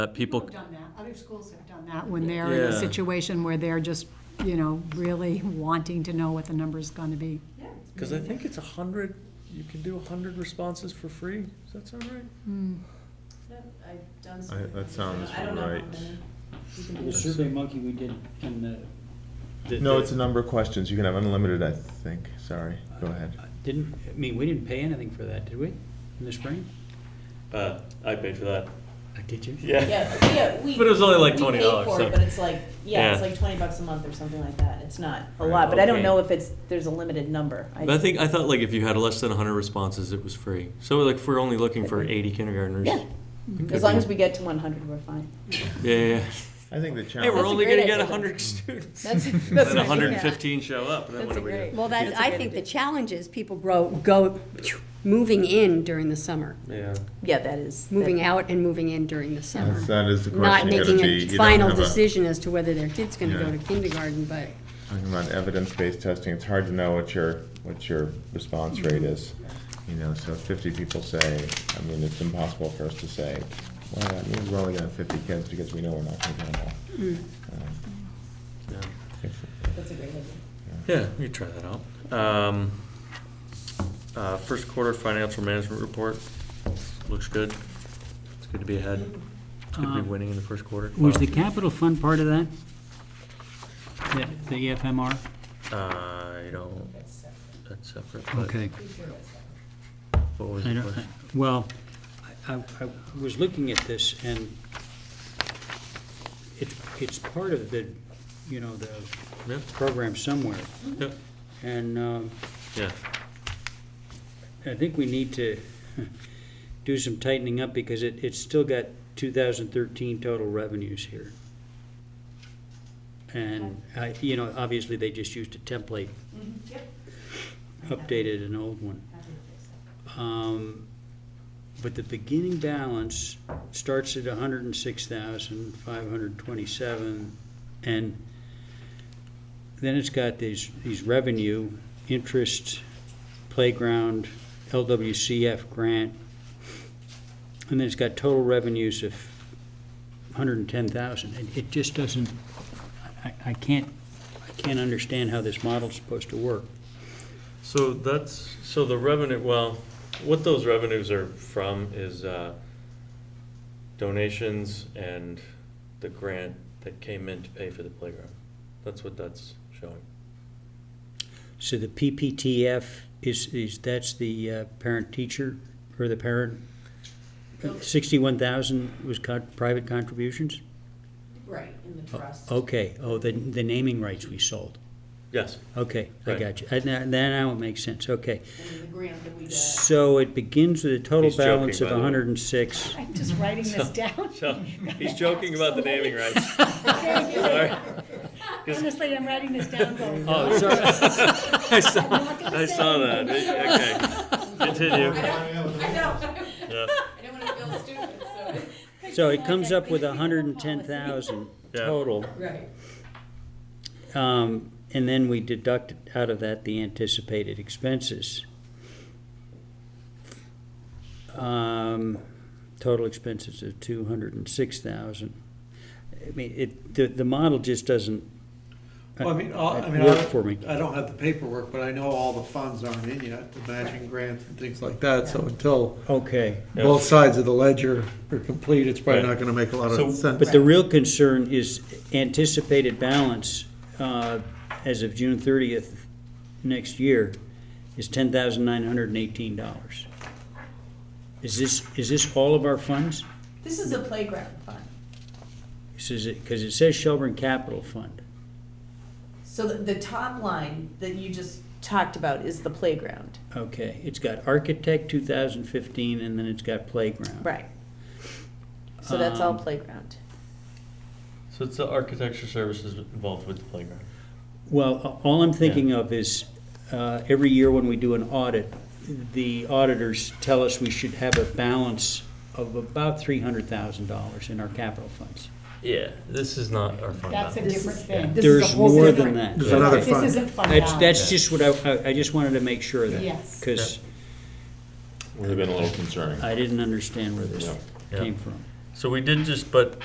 That people, People have done that, other schools have done that when they're in Yeah. a situation where they're just, you know, really wanting to know what the number's gonna be. because I think it's a hundred, you can do a hundred responses for free, does that sound right? I've done I- that sounds right. The survey monkey we did in the. the- No, the- it's a number of questions. You can have unlimited, I think. Sorry, go ahead. Didn't, I mean, we didn't pay anything for that, did we, in the spring? Uh, I paid for that. Uh, Did you? Yeah, but yeah, we. But it was only like we $20, paid for it, so- But it's like, yeah, it's Yeah. like twenty bucks a month or something like that. It's not a Right, lot, but I okay. don't know if it's, there's a limited number. But I think, I thought like if you had less than hundred responses, it was free. So like if we're only looking for eighty kindergartners. Yeah. it could As long be- as we get to one hundred, we're fine. Yeah, yeah, yeah. I think the Hey, challenge. we're That's a only great gonna get idea. hundred students. That's- And that's then an idea. hundred and fifteen show up, and then what That's do we a great- do? Well, that, That's a I good think the idea. challenge is people grow, go, moving in during the summer, Yeah. Yeah, that is. moving out and moving in during the summer. That's- That is the Not question. You gotta making be- a you don't final have a- decision as to whether their kid's gonna go Yeah. to kindergarten, but Talking about evidence-based testing, it's hard to know what your, what your response rate is. You know, so if fifty people say, I mean, it's impossible for us to say, well, I mean, we're only gonna have fifty kids because we know we're not gonna get them all. Mm. Um, Yeah. if- That's a great idea. Yeah, we could try that out. Um, uh, first quarter financial management report, looks good. It's good to be ahead. It's good to be Um, winning in the first quarter. Was the capital fund part of that? The- The EFMR? Uh, I don't, that's separate. but Okay. What was I the don't- question? Well, I, I- I was looking at this and it's, it's part of the, you know, the Yeah, program somewhere. yeah, And, um, yeah. I think we need to do some tightening up because it, it's still got two thousand thirteen total revenues here. And I, you know, obviously they just used a template, updated an old one. Um, but the beginning balance starts at hundred and six thousand, five hundred twenty-seven, and then it's got these, these revenue, interest, playground, LWCF grant, and then it's got total revenues of hundred and ten thousand. It, it just doesn't, I, I can't, I can't understand how this model's supposed to work. So that's, so the revenue, well, what those revenues are from is uh, donations and the grant that came in to pay for the playground. That's what that's showing. So the PPTF is, is, that's the uh, parent teacher or the parent? Sixty-one thousand was con- private contributions? Right, in the trust. Okay, oh, the, the naming rights we sold. Yes. Okay, I Right. got you. And now, now it makes sense, okay. And the grant that we So it begins with a total He's joking, balance by of the way. hundred and six. I'm just writing this down. So, he's joking about the naming rights. Sorry. Honestly, I'm writing this down going, Oh, sorry. I saw, I saw that. Okay. Continue. Yeah. I don't wanna feel stupid, so. So it comes up with hundred and ten thousand Yeah. total. Right. Um, and then we deduct out of that the anticipated expenses. Um, total expenses of two hundred and six thousand. I mean, it, the, the model just doesn't. Well, I mean, all- I mean, Work for me. I, I don't have the paperwork, but I know all the funds aren't in yet, the matching grants and things like that, so until Okay. Yeah. both sides of the ledger are complete, it's probably Right. not gonna make a lot So- of sense. But the real concern is anticipated balance, uh, as of June thirtieth next year, is ten thousand nine hundred and eighteen dollars. Is this, is this all of our funds? This is a playground fund. This is, because it says Shelburne Capital Fund. So the, the top line that you just talked about is the playground. Okay, it's got architect two thousand fifteen, and then it's got playground. Right. So that's all Um, playground. So it's the architecture services involved with the playground. Well, a- all I'm thinking of is, uh, every year when we do an audit, the auditors tell us we should have a balance of about three hundred thousand dollars in our capital funds. Yeah, this is not our fund. that's a balance. different thing. This is a There's whole more than different- that. There's another This fund. isn't fund That's, balance. that's just what I- I, I just wanted to make sure of that. Yes. Because Would have been a little concerning. I didn't understand where this Yeah. Yeah. came from. So we did just, but